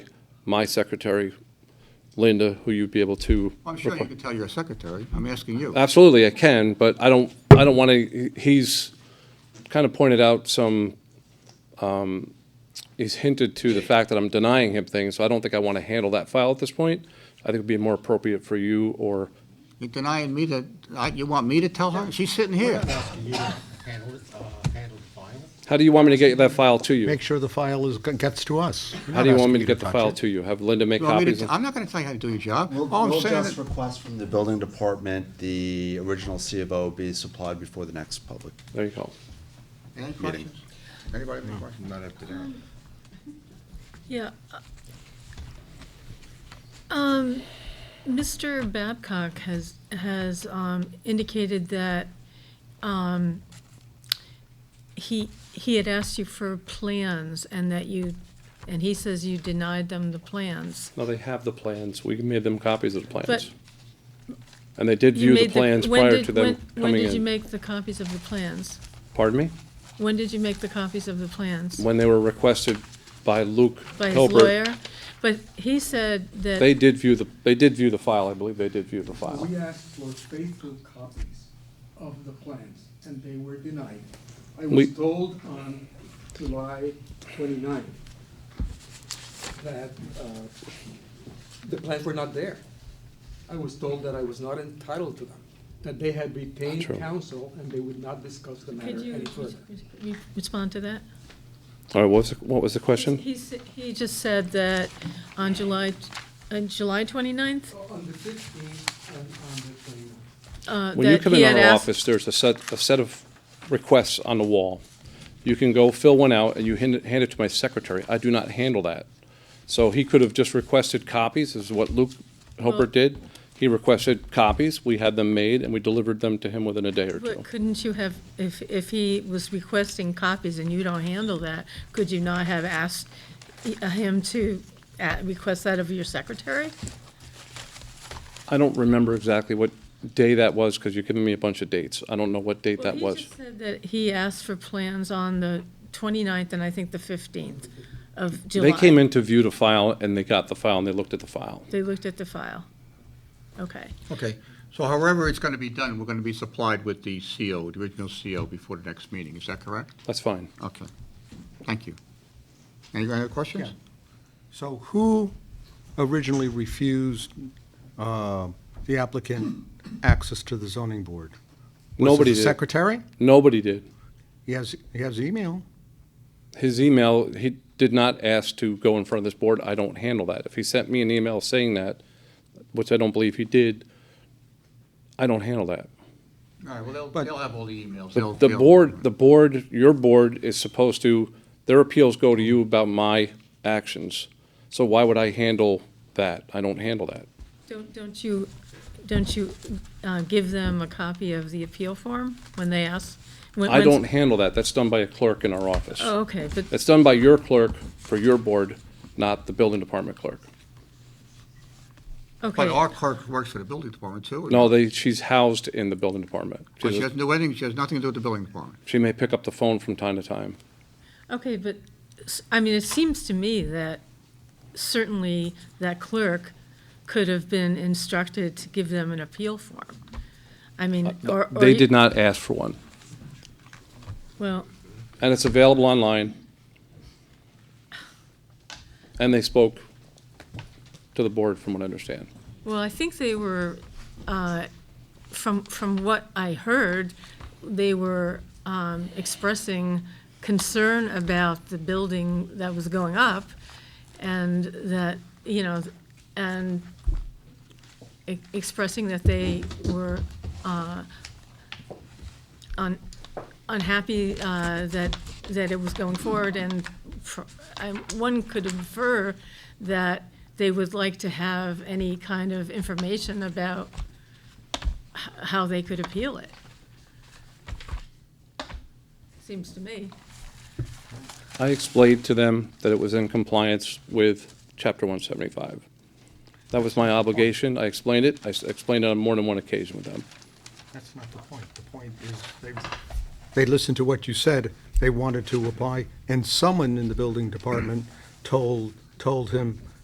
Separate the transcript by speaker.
Speaker 1: my secretary, Linda, who you'd be able to.
Speaker 2: I'm sure you can tell your secretary. I'm asking you.
Speaker 1: Absolutely, I can, but I don't, I don't want to, he's kind of pointed out some, um, he's hinted to the fact that I'm denying him things, so I don't think I want to handle that file at this point. I think it'd be more appropriate for you or,
Speaker 2: You're denying me to, I- you want me to tell her? She's sitting here.
Speaker 3: Asking you to handle it, uh, handle the file.
Speaker 1: how do you want me to get that file to you?
Speaker 3: Make sure the file is, gets to us. We're
Speaker 1: How
Speaker 3: not
Speaker 1: do you want
Speaker 3: asking
Speaker 1: me to get the
Speaker 3: touch
Speaker 1: file
Speaker 3: it.
Speaker 1: to you? Have Linda make
Speaker 2: You want me to
Speaker 1: copies?
Speaker 2: t- I'm not going to tell you how to do your job.
Speaker 4: We'll,
Speaker 2: All I'm
Speaker 4: we'll
Speaker 2: saying
Speaker 4: just
Speaker 2: is,
Speaker 4: request from the building department, the original C of O be supplied before the next public.
Speaker 1: There you go.
Speaker 2: any questions? Anybody have any questions? Not after that.
Speaker 5: Yeah. Um, Mr. Babcock has, has um, indicated that um, he, he had asked you for plans and that you, and he says you denied them the plans.
Speaker 1: No, they have the plans. We made them copies of the
Speaker 5: But-
Speaker 1: plans. And they did view
Speaker 5: You
Speaker 1: the
Speaker 5: made
Speaker 1: plans
Speaker 5: when
Speaker 1: prior
Speaker 5: did-
Speaker 1: to them
Speaker 5: when- When
Speaker 1: coming
Speaker 5: did you
Speaker 1: in.
Speaker 5: make the copies of the plans?
Speaker 1: Pardon me?
Speaker 5: When did you make the copies of the plans?
Speaker 1: When they were requested by Luke
Speaker 5: By his
Speaker 1: Hilbert.
Speaker 5: lawyer? But he said that.
Speaker 1: They did view the, they did view the file. I believe they did view the file.
Speaker 6: We asked for faithful copies of the plans, and they were denied. I
Speaker 1: We-
Speaker 6: was told on July 29th that uh, the plans were not there. I was told that I was not entitled to them, that they had retained
Speaker 1: True.
Speaker 6: counsel and they would not discuss the matter
Speaker 5: Could you
Speaker 6: any further.
Speaker 5: you respond to that?
Speaker 1: All right, what was, the- what was the question?
Speaker 5: He, s- he just said that on July, on July 29th?
Speaker 6: On the 15th and on the 29th.
Speaker 5: uh,
Speaker 1: When you
Speaker 5: that
Speaker 1: come
Speaker 5: he
Speaker 1: in
Speaker 5: had
Speaker 1: our
Speaker 5: asked-
Speaker 1: office, there's a set, a set of requests on the wall. You can go fill one out and you hand it, hand it to my secretary. I do not handle that. So he could have just requested copies, is what Luke
Speaker 5: Well-
Speaker 1: Hilbert did. He requested copies, we had them made, and we delivered them to him within a day or two.
Speaker 5: But couldn't you have, if, if he was requesting copies and you don't handle that, could you not have asked i- him to uh, request that of your secretary?
Speaker 1: I don't remember exactly what day that was, because you're giving me a bunch of dates. I don't know what date that
Speaker 5: Well,
Speaker 1: was.
Speaker 5: he just said that he asked for plans on the 29th and I think the 15th of July.
Speaker 1: They came in to view the file, and they got the file, and they looked at the file.
Speaker 5: They looked at the file. Okay.
Speaker 2: Okay, so however it's going to be done, we're going to be supplied with the CO, the original CO before the next meeting. Is that correct?
Speaker 1: That's fine.
Speaker 2: Okay, thank you. Any other questions?
Speaker 3: So who originally refused uh, the applicant access to the zoning board? Was it
Speaker 1: Nobody
Speaker 3: the
Speaker 1: did.
Speaker 3: Secretary?
Speaker 1: Nobody did.
Speaker 3: He has, he has email.
Speaker 1: His email, he did not ask to go in front of this board. I don't handle that. If he sent me an email saying that, which I don't believe he did, I don't handle that.
Speaker 2: All right, well, they'll,
Speaker 3: But-
Speaker 2: they'll have all the emails.
Speaker 1: The
Speaker 2: They'll-
Speaker 1: the
Speaker 2: they'll-
Speaker 1: board, the board, your board is supposed to, their appeals go to you about my actions. So why would I handle that? I don't handle that.
Speaker 5: Don't, don't you, don't you uh, give them a copy of the appeal form when they ask? when-
Speaker 1: I
Speaker 5: when-
Speaker 1: don't handle that. That's done by a clerk in our office.
Speaker 5: Oh, okay, but,
Speaker 1: That's done by your clerk for your board, not the building department clerk.
Speaker 2: But
Speaker 5: okay,
Speaker 2: our clerk works for the building department too.
Speaker 1: No, they, she's housed in the building department.
Speaker 2: Well, Oh, She doesn't do anything, she has nothing to do with the building department.
Speaker 1: She may pick up the phone from time to time.
Speaker 5: okay, but, s- I mean, it seems to me that certainly that clerk could have been instructed to give them an appeal form. I mean, or. or
Speaker 1: Uh, They
Speaker 5: you-
Speaker 1: did not ask for one,
Speaker 5: Well,
Speaker 1: and it's available online. And they spoke to the board, from what I understand.
Speaker 5: well, I think they were, uh, from, from what I heard, they were um, expressing concern about the building that was going up, and that, you know, and e- expressing that they were uh, un- unhappy uh, that, that it was going forward, and fr- I- one could infer that they would like to have any kind of information about h- how they could appeal it. Seems to me.
Speaker 1: I explained to them that it was in compliance with Chapter 175. That was my obligation. I explained it. I s- explained it on more than one occasion with them.
Speaker 3: That's not the point. The point is they. They listened to what you said. They wanted to apply, and someone in the building department told, told him,